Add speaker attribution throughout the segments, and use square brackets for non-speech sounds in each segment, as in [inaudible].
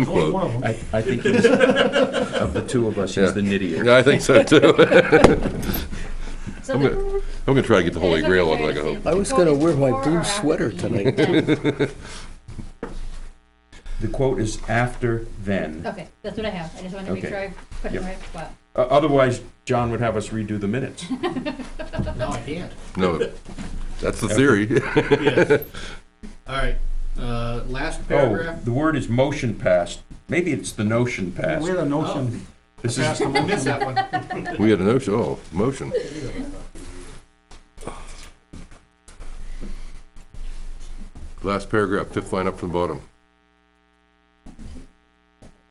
Speaker 1: unquote.
Speaker 2: I, I think he's, of the two of us, he's the nittier.
Speaker 1: Yeah, I think so too. [laughs]
Speaker 3: So
Speaker 1: I'm
Speaker 3: the-
Speaker 1: gonna, I'm gonna try to get the Holy
Speaker 3: It's
Speaker 1: Grail on
Speaker 3: okay
Speaker 1: it, I
Speaker 3: to
Speaker 1: hope.
Speaker 3: say
Speaker 4: I was
Speaker 3: before-
Speaker 4: gonna wear my
Speaker 3: before or
Speaker 4: blue
Speaker 3: after
Speaker 4: sweater
Speaker 3: the
Speaker 4: tonight.
Speaker 3: event.
Speaker 2: The quote is after then.
Speaker 3: [laughs] Okay, that's what I have. I just wanted to make
Speaker 2: Okay.
Speaker 3: sure I put it
Speaker 2: Yep.
Speaker 3: right. spot.
Speaker 2: O- Otherwise, John would have us redo the
Speaker 5: [laughs]
Speaker 2: minutes. Oh,
Speaker 5: No, I can't.
Speaker 1: No, that's the theory. [laughs]
Speaker 6: [laughs]
Speaker 5: Yes. All right, uh, last
Speaker 2: Oh,
Speaker 5: paragraph.
Speaker 2: the word is motion passed. Maybe it's the notion passed.
Speaker 6: Where the notion,
Speaker 1: Oh.
Speaker 2: This
Speaker 5: Pass
Speaker 2: is,
Speaker 5: the one, miss that one.
Speaker 1: We had a notion, oh, motion. Last paragraph, fifth line up from the bottom.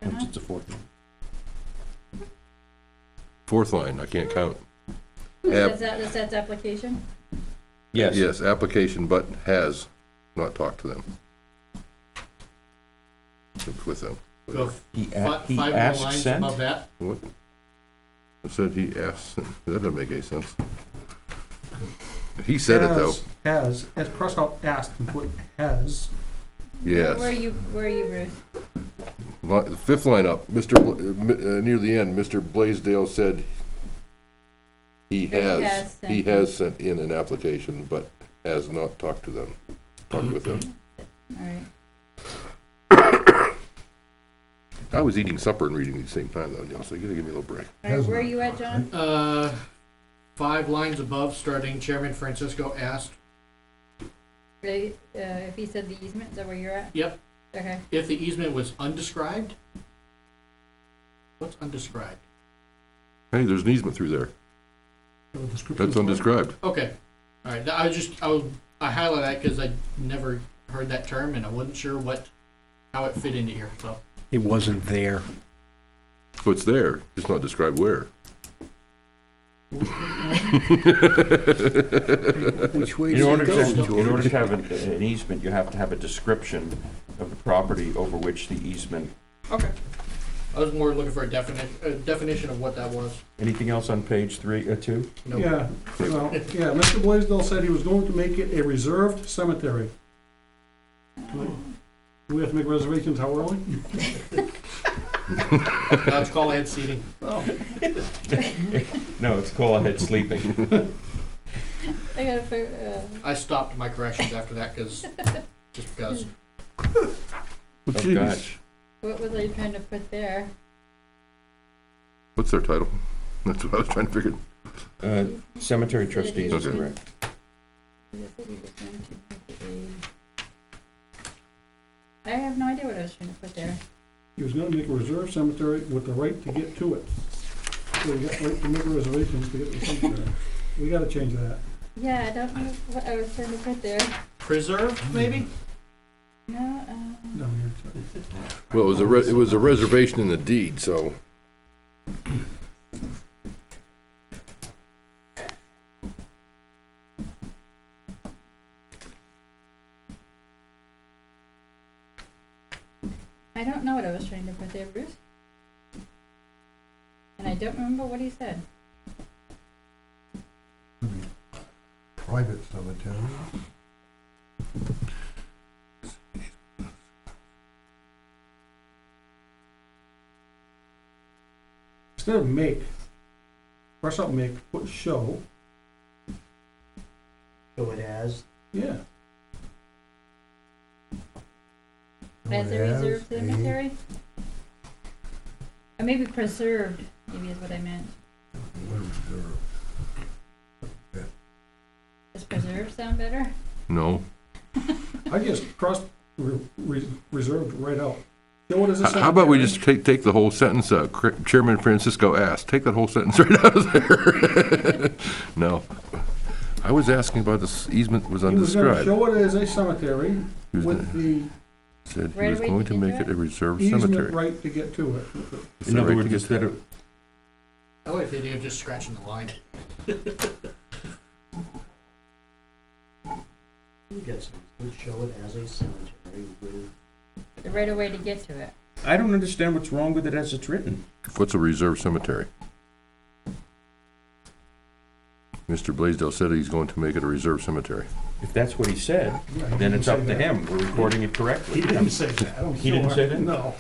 Speaker 2: it's a fourth. one.
Speaker 1: Fourth line, I can't count.
Speaker 3: That's,
Speaker 1: App,
Speaker 3: that- that's, that's application?
Speaker 2: Yes,
Speaker 1: yes, application, but has not talked to them. With them.
Speaker 5: Go
Speaker 2: he, a-
Speaker 5: fi-
Speaker 2: [laughs] he
Speaker 5: five more
Speaker 2: asked
Speaker 5: lines
Speaker 2: sent.
Speaker 5: above that.
Speaker 1: What? I said he asked, [laughs] that doesn't make any sense. He said it though,
Speaker 6: has, has, as Prescott asked, and put has,
Speaker 1: yes.
Speaker 3: Where are you, where are you, Bruce?
Speaker 1: Li- the Fifth line up, Mr., Bla- uh, mi- uh, near the end, Mr. Blaisdell said he
Speaker 3: has
Speaker 1: has,
Speaker 3: sent
Speaker 1: he has sent in an application, but has not talked to them, talked with them.
Speaker 3: All right.
Speaker 1: I was eating supper and reading at the same time though, Neil, so you gotta give me a little break.
Speaker 3: All right, where are you at, John?
Speaker 5: Uh, five lines above, starting Chairman Francisco asked
Speaker 3: Really, uh, if he said the easement, is that where you're at?
Speaker 5: Yep.
Speaker 3: Okay,
Speaker 5: if the easement was undescribed. What's undescribed?
Speaker 1: Hey, there's an easement through there,
Speaker 6: the description.
Speaker 1: that's undescribed.
Speaker 5: Okay, all right, I was just, I was, I highlighted that because I never heard that term and I wasn't sure what, how it fit into here, so.
Speaker 4: It wasn't there.
Speaker 1: So Oh, it's there, it's not described where.
Speaker 4: Which way
Speaker 2: In
Speaker 4: did
Speaker 2: order
Speaker 4: it go,
Speaker 2: to, in order to
Speaker 4: George?
Speaker 2: have an- an easement, you have to have a description of the property over which the easement,
Speaker 5: Okay. I was more looking for a definition, a definition of what that was.
Speaker 2: anything else on page three or two?
Speaker 5: No.
Speaker 6: Yeah, well, yeah, Mr. Blaisdell said he was going to make it a reserved cemetery. Do we have to make reservations how early?
Speaker 5: Now it's call ahead seating.
Speaker 6: Oh.
Speaker 2: No, it's call ahead sleeping.
Speaker 3: I gotta, uh, fi-
Speaker 5: I stopped my corrections after that because, just because.
Speaker 1: Well,
Speaker 2: Oh,
Speaker 1: geez.
Speaker 2: gosh.
Speaker 3: uh, what was I trying to put there?
Speaker 1: What's their title? [laughs] That's what I was trying to figure.
Speaker 2: Uh, Cemetery trustees is
Speaker 1: Okay.
Speaker 2: correct.
Speaker 3: I have no idea what I was trying to put there.
Speaker 6: He was gonna make a reserved cemetery with the right to get to it. So you got right to make reservations to get to the cemetery. We gotta change that.
Speaker 3: Yeah, I don't know what I was trying to put there.
Speaker 5: Preserved, maybe?
Speaker 3: No, um,
Speaker 6: Down here.
Speaker 1: Well, it was a, re- it was a reservation in the deed, so.
Speaker 3: I don't know what I was trying to put there, Bruce. And I don't remember what he said.
Speaker 7: private cemetery.
Speaker 6: Instead of make, Prescott make, put show,
Speaker 8: show it as.
Speaker 6: yeah.
Speaker 3: As a reserved cemetery? Or maybe preserved, maybe is what I meant. Does preserved sound better?
Speaker 1: No.
Speaker 6: I just crossed re- re- reserved right out. Then what is
Speaker 1: How
Speaker 6: this?
Speaker 1: how about we just take, take the whole sentence out? Cr- Chairman Francisco asked, take that whole sentence [laughs] right out of there. [laughs] No. I was asking about this easement was
Speaker 6: He was gonna
Speaker 1: undescribed.
Speaker 6: show it as a cemetery
Speaker 1: He was
Speaker 6: with
Speaker 1: gonna-
Speaker 6: the
Speaker 1: Said he
Speaker 3: Right
Speaker 1: was
Speaker 3: away
Speaker 1: going to
Speaker 3: you can
Speaker 1: make
Speaker 3: do
Speaker 1: it a reserve
Speaker 6: easement
Speaker 1: cemetery.
Speaker 6: right to get to it.
Speaker 1: Is
Speaker 2: In
Speaker 1: that
Speaker 2: other
Speaker 1: right
Speaker 2: words,
Speaker 1: to get
Speaker 2: instead of,
Speaker 5: I like the idea of just scratching the line.
Speaker 8: You get some, would show it as a cemetery with.
Speaker 3: The right away to get to it.
Speaker 2: I don't understand what's wrong with it as it's written.
Speaker 1: What's a reserve cemetery? Mr. Blaisdell said he's going to make it a reserve cemetery.
Speaker 2: If that's what he said, then it's up to him. We're recording it correctly.
Speaker 6: He didn't say that. I don't
Speaker 2: He didn't
Speaker 6: know.
Speaker 2: say that?
Speaker 6: No.